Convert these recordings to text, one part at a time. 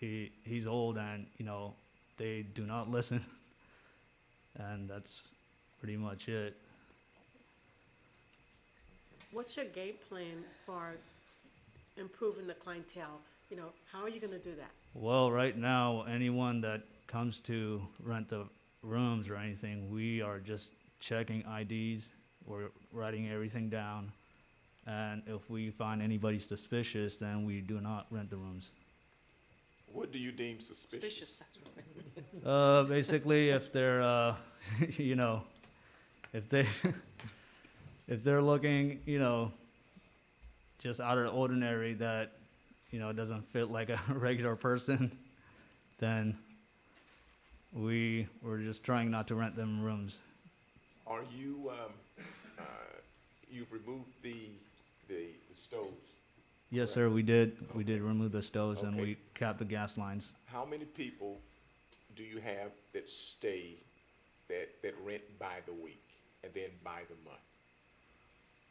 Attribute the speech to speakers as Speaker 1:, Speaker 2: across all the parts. Speaker 1: he he's old and you know they do not listen, and that's pretty much it.
Speaker 2: What's your game plan for improving the clientele? You know, how are you gonna do that?
Speaker 1: Well, right now, anyone that comes to rent the rooms or anything, we are just checking IDs. We're writing everything down. And if we find anybody suspicious, then we do not rent the rooms.
Speaker 3: What do you deem suspicious?
Speaker 2: Suspicious, that's what
Speaker 1: Uh, basically, if they're, uh, you know, if they, if they're looking, you know, just out of the ordinary that, you know, doesn't fit like a regular person, then we were just trying not to rent them rooms.
Speaker 3: Are you, um, uh, you've removed the, the the stoves.
Speaker 1: Yes, sir, we did. We did remove the stoves and
Speaker 3: Okay.
Speaker 1: we capped the gas lines.
Speaker 3: How many people do you have that stay, that, that rent by the week and then by the month?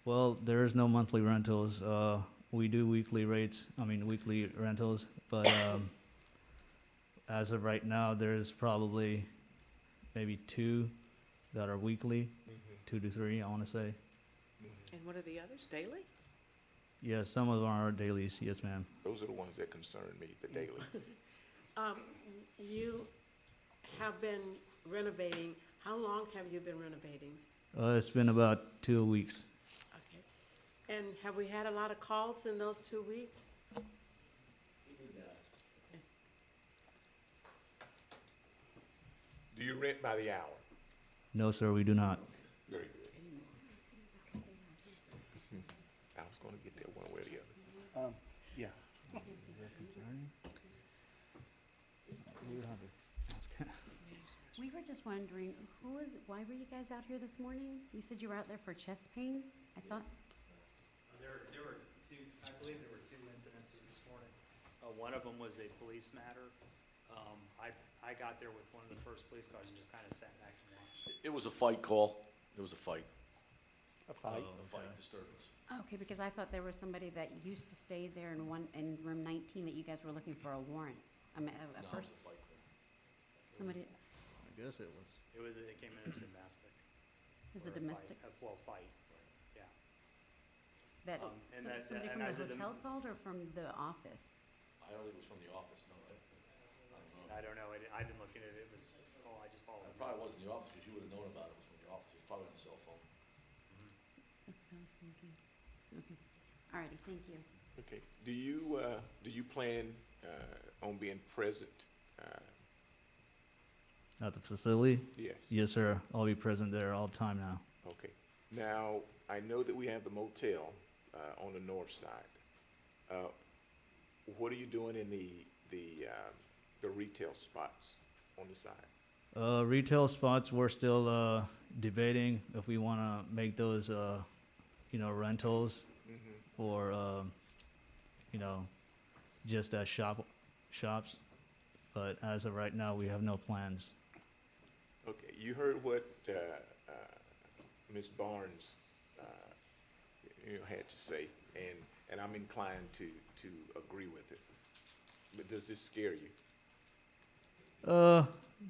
Speaker 1: Well, there is no monthly rentals. Uh, we do weekly rates. I mean, weekly rentals. But um, as of right now, there's probably maybe two that are weekly, two to three, I want to say.
Speaker 4: And what are the others, daily?
Speaker 1: Yes, some of them are dailies. Yes, ma'am.
Speaker 3: Those are the ones that concern me, the daily.
Speaker 2: Um, you have been renovating, how long have you been renovating?
Speaker 1: Uh, it's been about two weeks.
Speaker 2: Okay. And have we had a lot of calls in those two weeks?
Speaker 3: Do you rent by the hour?
Speaker 1: No, sir, we do not.
Speaker 3: Very good. I was gonna get there one way or the other.
Speaker 5: Um, yeah.
Speaker 6: We were just wondering, who was, why were you guys out here this morning? You said you were out there for chest pains? I thought,
Speaker 7: There, there were two, I believe there were two incidences this morning. Uh, one of them was a police matter. Um, I, I got there with one of the first police cars and just kind of sat back and watched.
Speaker 8: It was a fight call. It was a fight,
Speaker 5: A fight.
Speaker 3: Uh,
Speaker 8: a fight disturbance.
Speaker 6: okay, because I thought there was somebody that used to stay there in one, in room nineteen that you guys were looking for a warrant. I mean, a, a
Speaker 8: No, it was
Speaker 6: person,
Speaker 8: a fight call.
Speaker 6: somebody,
Speaker 1: I guess it was.
Speaker 7: It was, it came in as domestic.
Speaker 6: is
Speaker 7: or
Speaker 6: a
Speaker 7: fight,
Speaker 6: domestic,
Speaker 7: uh, Well, fight, yeah.
Speaker 6: that,
Speaker 7: um, and
Speaker 6: some-
Speaker 7: as a-
Speaker 6: somebody
Speaker 7: and
Speaker 6: from
Speaker 7: as a
Speaker 6: the
Speaker 7: dom-
Speaker 6: hotel called or from the office?
Speaker 8: I don't think it was from the office, no, right? I don't know.
Speaker 7: I don't know, I didn't, I didn't look at it, it was, oh, I just followed.
Speaker 8: It
Speaker 7: him.
Speaker 8: probably wasn't the office, because you would have known about it. It was from the office. It was probably on the cell phone.
Speaker 6: That's what I was thinking. Okay, alrighty, thank you.
Speaker 3: Okay, do you, uh, do you plan, uh, on being present? Uh,
Speaker 1: At the facility?
Speaker 3: Yes.
Speaker 1: Yes, sir. I'll be present there all the time now.
Speaker 3: Okay. Now, I know that we have the motel, uh, on the north side. Uh, what are you doing in the, the, um, the retail spots on the side?
Speaker 1: Uh, retail spots, we're still uh, debating if we want to make those, uh, you know, rentals or, um, you know, just as shop shops. But as of right now, we have no plans.
Speaker 3: Okay, you heard what, uh, uh, Ms. Barnes, uh, you know, had to say, and, and I'm inclined to, to agree with it. But does this scare you?
Speaker 1: Uh,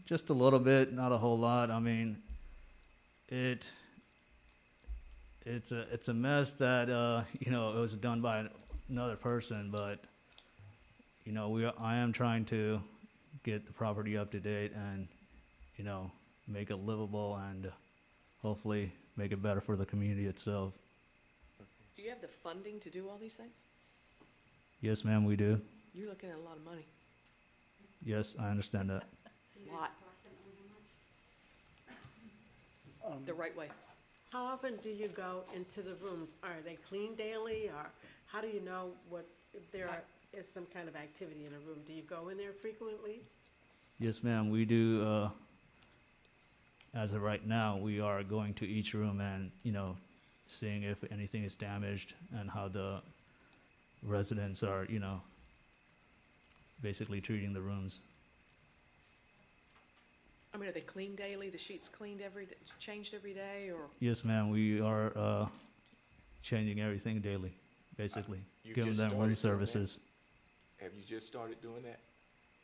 Speaker 1: just a little bit, not a whole lot. I mean, it it's a it's a mess that uh you know it was done by another person, but you know we are, I am trying to get the property up to date and you know make it livable and hopefully make it better for the community itself.
Speaker 4: Do you have the funding to do all these things?
Speaker 1: Yes, ma'am, we do.
Speaker 4: You're looking at a lot of money.
Speaker 1: Yes, I understand that.
Speaker 4: Lot, the right way.
Speaker 2: How often do you go into the rooms? Are they cleaned daily, or how do you know what, if there are- is some kind of activity in a room? Do you go in there frequently?
Speaker 1: Yes, ma'am, we do, uh, as of right now, we are going to each room and, you know, seeing if anything is damaged and how the residents are, you know, basically treating the rooms.
Speaker 4: I mean, are they cleaned daily? The sheets cleaned every, d- changed every day, or?
Speaker 1: Yes, ma'am, we are, uh, changing everything daily, basically,
Speaker 3: Uh, You
Speaker 1: giving
Speaker 3: just
Speaker 1: them
Speaker 3: started doing
Speaker 1: room
Speaker 3: that?
Speaker 1: services.
Speaker 3: Have you just started doing that?